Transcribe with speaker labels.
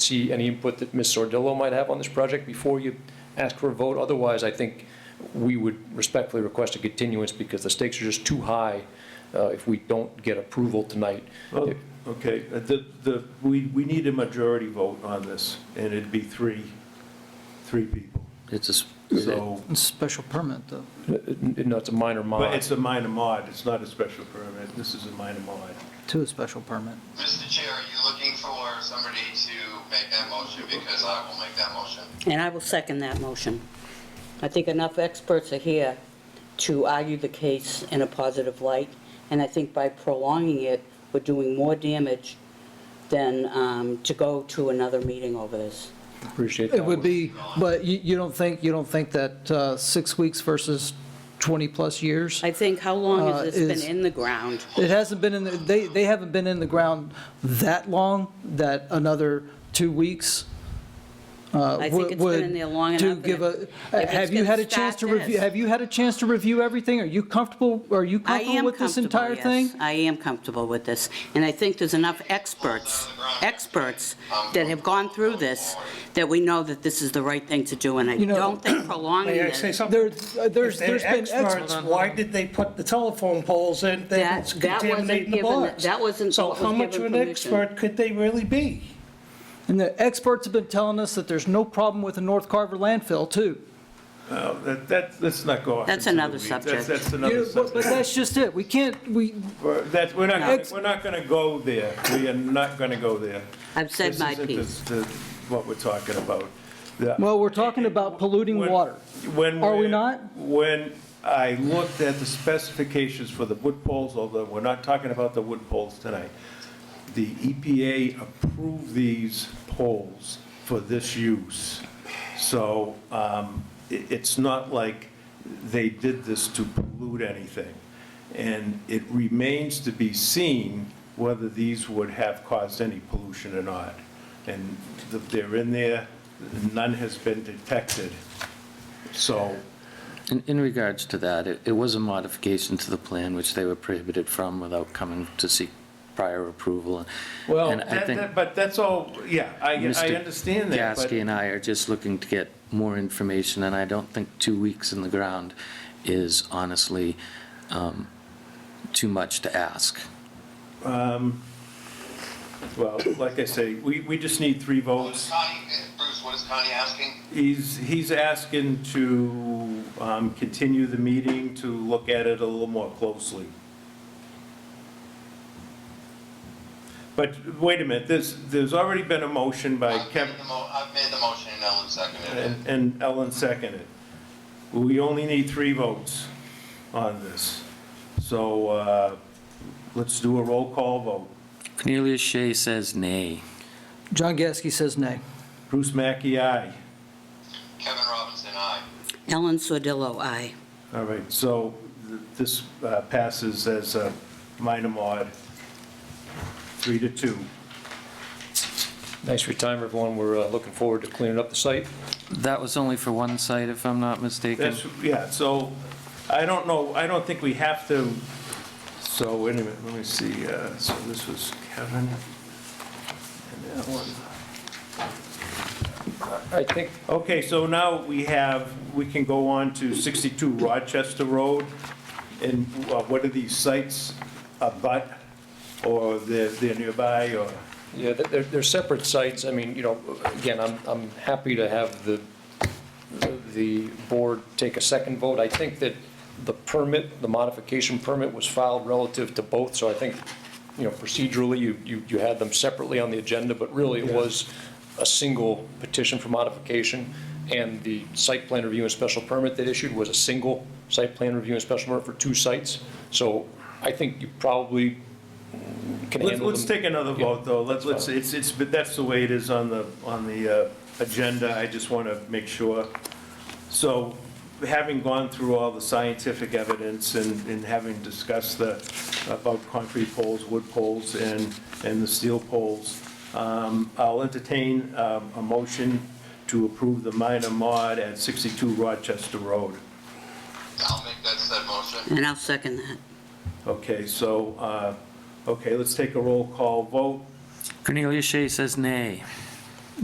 Speaker 1: see any input that Ms. Sordillo might have on this project before you ask for a vote. Otherwise, I think we would respectfully request a continuance because the stakes are just too high uh, if we don't get approval tonight.
Speaker 2: Well, Okay, uh, the, the, we, we need a majority vote on this, and it'd be three, three people.
Speaker 3: It's a, s-
Speaker 2: So,
Speaker 4: It's Special permit, though.
Speaker 1: No, it's a minor
Speaker 2: but
Speaker 1: mod.
Speaker 2: it's a minor mod, it's not a special permit, this is a minor mod.
Speaker 4: Two special permit.
Speaker 5: Mr. Chair, are you looking for somebody to make that motion? Because I will make that motion.
Speaker 6: And I will second that motion. I think enough experts are here to argue the case in a positive light, and I think by prolonging it, we're doing more damage than um, to go to another meeting over this.
Speaker 1: Appreciate that.
Speaker 4: It would be, but you, you don't think, you don't think that uh, six weeks versus 20-plus years?
Speaker 6: I think, how long
Speaker 4: Uh,
Speaker 6: has this
Speaker 4: is-
Speaker 6: been in the ground?
Speaker 4: It hasn't been in, the- they, they haven't been in the ground that long, that another two weeks uh,
Speaker 6: I think
Speaker 4: would.
Speaker 6: it's been in there long
Speaker 4: would
Speaker 6: enough.
Speaker 4: do
Speaker 6: and
Speaker 4: give
Speaker 6: if-
Speaker 4: a-
Speaker 6: if it's
Speaker 4: Have you
Speaker 6: gonna
Speaker 4: had a chance to
Speaker 6: start
Speaker 4: review,
Speaker 6: this-
Speaker 4: have you had a chance to review everything? Are you comfortable, are you
Speaker 6: I
Speaker 4: comfortable
Speaker 6: am
Speaker 4: with this
Speaker 6: comfortable,
Speaker 4: entire thing?
Speaker 6: yes. I am comfortable with this. And I think there's enough experts, experts that have gone through this, that we know that this is the right thing to do. And I
Speaker 4: You know-
Speaker 6: don't think prolonging
Speaker 7: May I say
Speaker 6: it,
Speaker 7: something?
Speaker 4: There, uh, there's,
Speaker 7: If they're
Speaker 4: there's been
Speaker 7: experts,
Speaker 4: experts.
Speaker 7: why did they put the telephone poles in? They
Speaker 6: That- that
Speaker 7: was
Speaker 6: wasn't
Speaker 7: contaminating the
Speaker 6: given-
Speaker 7: box.
Speaker 6: that wasn't what
Speaker 7: So
Speaker 6: was
Speaker 7: how much of
Speaker 6: given
Speaker 7: an
Speaker 6: permission.
Speaker 7: expert could they really be?
Speaker 4: And the experts have been telling us that there's no problem with the North Carver landfill, too.
Speaker 2: Now, Oh, that, that, let's not go off.
Speaker 6: That's
Speaker 2: into the
Speaker 6: another
Speaker 2: weeds.
Speaker 6: subject.
Speaker 2: That's, that's
Speaker 4: You
Speaker 2: another
Speaker 4: know, But but
Speaker 2: subject.
Speaker 4: that's just it, we can't, we,
Speaker 2: We're- That's, we're not, gonna-
Speaker 4: Ex-
Speaker 2: we're not gonna go there, we are not gonna go there.
Speaker 6: I've said
Speaker 2: This
Speaker 6: my
Speaker 2: isn't
Speaker 6: piece.
Speaker 2: the- the- What we're talking about. The-
Speaker 4: well, we're talking about polluting
Speaker 2: When-
Speaker 4: water.
Speaker 2: When.
Speaker 4: Are we
Speaker 2: we're-
Speaker 4: not?
Speaker 2: When I looked at the specifications for the wood poles, although we're not talking about the wood poles tonight, the EPA approved these poles for this use. So um, i- it's not like they did this to pollute anything. And it remains to be seen whether these would have caused any pollution or not. And th- they're in there, none has been detected. So
Speaker 3: in, in regards to that, it, it was a modification to the plan which they were prohibited from without coming to seek prior approval.
Speaker 2: Well,
Speaker 3: And I
Speaker 2: Oh, that-
Speaker 3: think
Speaker 2: that- but that's all, yeah, I, I
Speaker 3: Mr.
Speaker 2: understand that, but
Speaker 3: Gasky and I are just looking to get more information, and I don't think two weeks in the ground is honestly um, too much to ask.
Speaker 2: Well, like I say, we, we just need three
Speaker 5: What is
Speaker 2: votes.
Speaker 5: Connie, Bruce, what is Connie asking?
Speaker 2: He's, he's asking to um, continue the meeting to look at it a little more closely. But wait a minute, there's, there's already been a motion by
Speaker 5: I've
Speaker 2: Kevin,
Speaker 5: made the mo- I've made the motion and Ellen seconded it.
Speaker 2: and and Ellen seconded. We only need three votes on this. So uh, let's do a roll call vote.
Speaker 3: Cornelius Shea says nay.
Speaker 4: John Gasky says nay.
Speaker 2: Bruce Mackey, aye.
Speaker 5: Kevin Robinson, aye.
Speaker 6: Ellen Sordillo, aye.
Speaker 2: All right, so th- this uh, passes as a minor mod, three to two.
Speaker 1: Thanks for your time, everyone. We're uh, looking forward to cleaning up the site.
Speaker 3: That was only for one site, if I'm not mistaken.
Speaker 2: That's, yeah, so I don't know, I don't think we have to, so wait a minute, let me see, uh, so this was Kevin and Ellen.
Speaker 1: I think
Speaker 2: Okay, so now we have, we can go on to 62 Rochester Road, and uh, what are these sites, abut, or they're they're nearby, or?
Speaker 1: Yeah, they're- they're, they're separate sites. I mean, you know, again, I'm, I'm happy to have the, the board take a second vote. I think that the permit, the modification permit was filed relative to both, so I think, you know, procedurally, you, you, you had them separately on the agenda, but really it was a single petition for modification, and the site plan review and special permit that issued was a single site plan review and special permit for two sites. So I think you probably can handle
Speaker 2: Let's,
Speaker 1: them.
Speaker 2: let's take another vote, though. Let's, let's, it's, it's, but that's the way it is on the, on the uh, agenda. I just want to make sure. So having gone through all the scientific evidence and, and having discussed the, about concrete poles, wood poles, and, and the steel poles, um, I'll entertain um, a motion to approve the minor mod at 62 Rochester Road.
Speaker 5: I'll make that said motion.
Speaker 6: And I'll second that.
Speaker 2: Okay, so, uh, okay, let's take a roll call vote.
Speaker 3: Cornelius Shea says nay.